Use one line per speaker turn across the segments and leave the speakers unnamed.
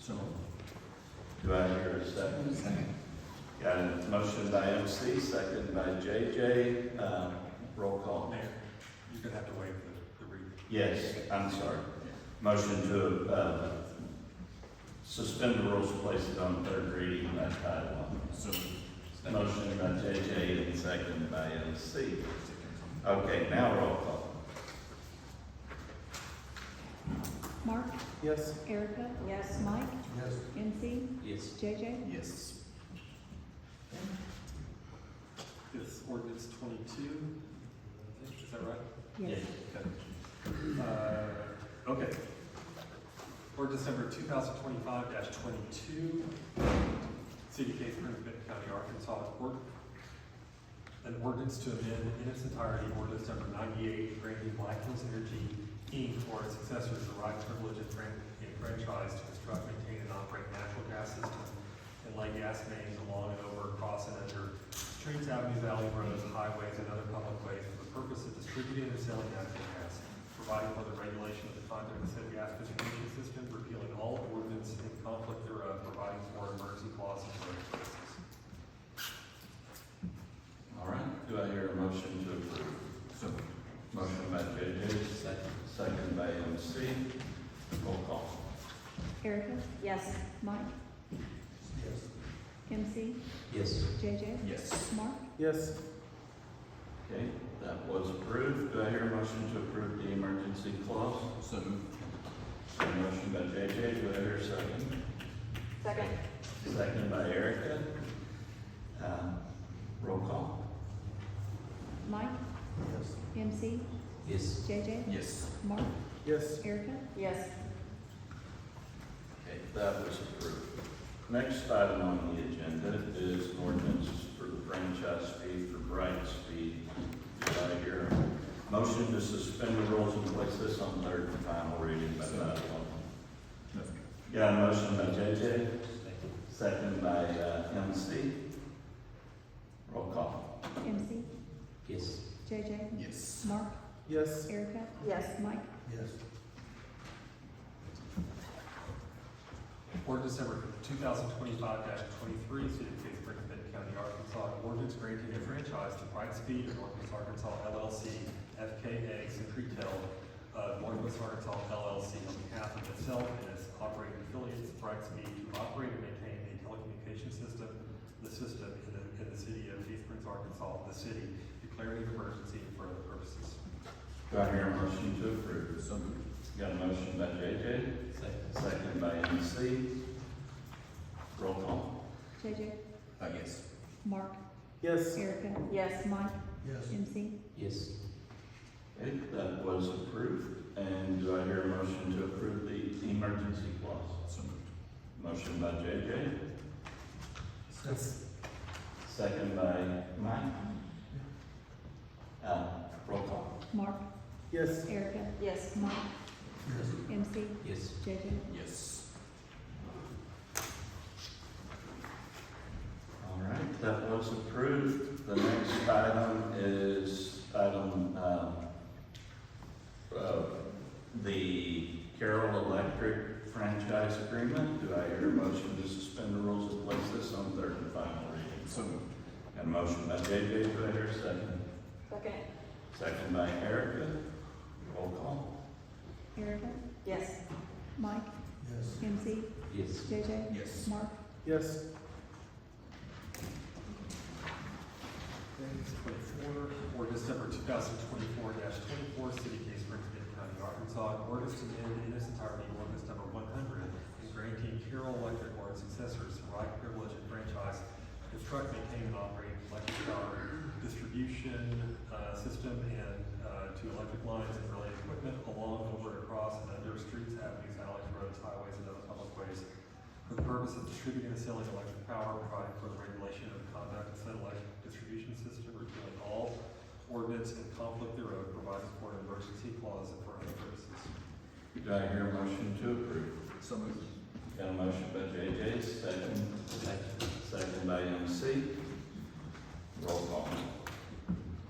So,
Do I hear a second? Got a motion by MC, second by JJ, um, roll call.
Mayor, you're gonna have to waive the, the reading.
Yes, I'm sorry. Motion to, uh, suspend the rules, place it on third reading by title
So.
only. Motion by JJ and second by MC. Okay, now roll call.
Mark,
Yes.
Erica. Yes. Mike,
Yes.
MC,
Yes.
JJ.
Yes.
It's ordinance twenty-two, I think, is that right?
Yes.
Uh, okay. Ordinance number two thousand twenty-five twenty-two, City of Case Grove, Benton County, Arkansas, Ord- an ordinance to amend in its entirety ordinance number ninety-eight, granting Black Hills Energy Inc. or its successors the right privilege and fran- and franchise to construct, maintain, and operate natural gas systems and light gas mains along and over, across, and under streets, avenues, alley roads, highways, and other public ways for the purpose of distributing and selling natural gas, providing for the regulation of the conduct of said gas distribution system, repealing all ordinance in conflict thereof, providing for emergency clauses for emergencies.
All right, do I hear a motion to approve?
So,
Motion by JJ, second, second by MC, roll call.
Erica,
Yes.
Mike,
yes.
MC,
Yes.
JJ.
Yes.
Mark,
Yes.
Okay, that was approved. Do I hear a motion to approve the emergency clause?
So,
A Motion by JJ, do I hear a second?
Second?
Second by Erica. Um, Roll call.
Mike,
yes.
MC,
Yes.
JJ.
Yes.
Mark,
Yes.
Erica.
Yes.
Okay, that was approved. Next item on the agenda is an ordinance for the franchise fee for Bright Speed. Do I hear a motion to suspend the rules and place this on third and final reading by title only? Got a motion by JJ, second by uh, MC. Roll call.
MC,
Yes.
JJ.
Yes.
Mark,
Yes.
Erica,
Yes.
Mike,
Yes.
Ordinance number two thousand twenty-five twenty-three, City of Cape Springs, Benton County, Arkansas, an ordinance granting a franchise to Brightspeed of Northwest Arkansas LLC, FKA Secretel of Northwest Arkansas LLC on behalf of itself and its operating affiliates, Brightspeed, to operate and maintain a telecommunication system, the system in the, in the city of Cape Springs, Arkansas, the city, declaring an emergency for other purposes.
Do I hear a motion to approve?
So moved.
Got a motion by JJ, second by MC. Roll call.
JJ.
Uh, yes.
Mark,
Yes.
Erica,
Yes.
Mike,
Yes.
MC,
Yes. Okay, that was approved. And do I hear a motion to approve the emergency clause?
So moved.
Motion by JJ,
Yes.
second by Mike. Uh, roll call.
Mark,
Yes.
Erica,
Yes.
Mike,
Yes.
MC,
Yes.
JJ.
Yes.
All right, that was approved. The next item is item, um, uh, the Carroll Electric franchise agreement. Do I hear a motion to suspend the rules and place this on third and final reading?
So moved.
Got a motion by JJ, do I hear a second?
Second?
Second by Erica. Roll call.
Erica,
Yes.
Mike,
Yes.
MC,
Yes.
JJ.
Yes.
Mark,
Yes. Twenty-four, ordinance number two thousand twenty-four twenty-four, City of Case Springs, Benton County, Arkansas, an ordinance to amend in its entirety ordinance number one hundred and granting Carroll Electric or its successors the right, privilege, and franchise to construct, maintain, and operate electric power distribution, uh, system and, uh, to electric lines and related equipment along, over, across, and under streets, avenues, alleys, roads, highways, and other public ways for the purpose of distributing and selling electric power, providing for the regulation of the conduct of said electric distribution system, repealing all ordinance in conflict thereof, providing for an emergency clause and for other purposes.
Do I hear a motion to approve?
So moved.
Got a motion by JJ, second. Second by MC. Roll call.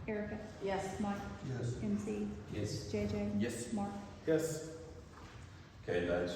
Erica,
Yes.
Mike,
Yes.
MC,
Yes.
JJ.
Yes.
Mark,
Yes.
Okay, that's